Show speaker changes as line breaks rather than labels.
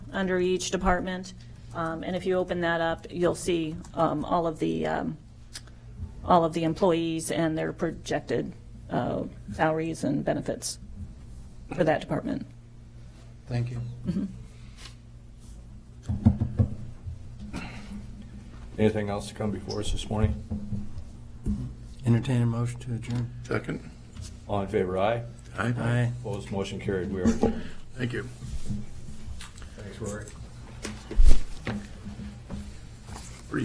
under each department. Um, And if you open that up, you'll see um, all of the, um, all of the employees and their projected uh, salaries and benefits for that department.
Thank you.
Anything else to come before us this morning?
Entertain a motion to adjourn.
Second.
All in favor, aye.
Aye.
Aye.
Opposed, motion carried. We are adjourned.
Thank you.
Thanks, Rory.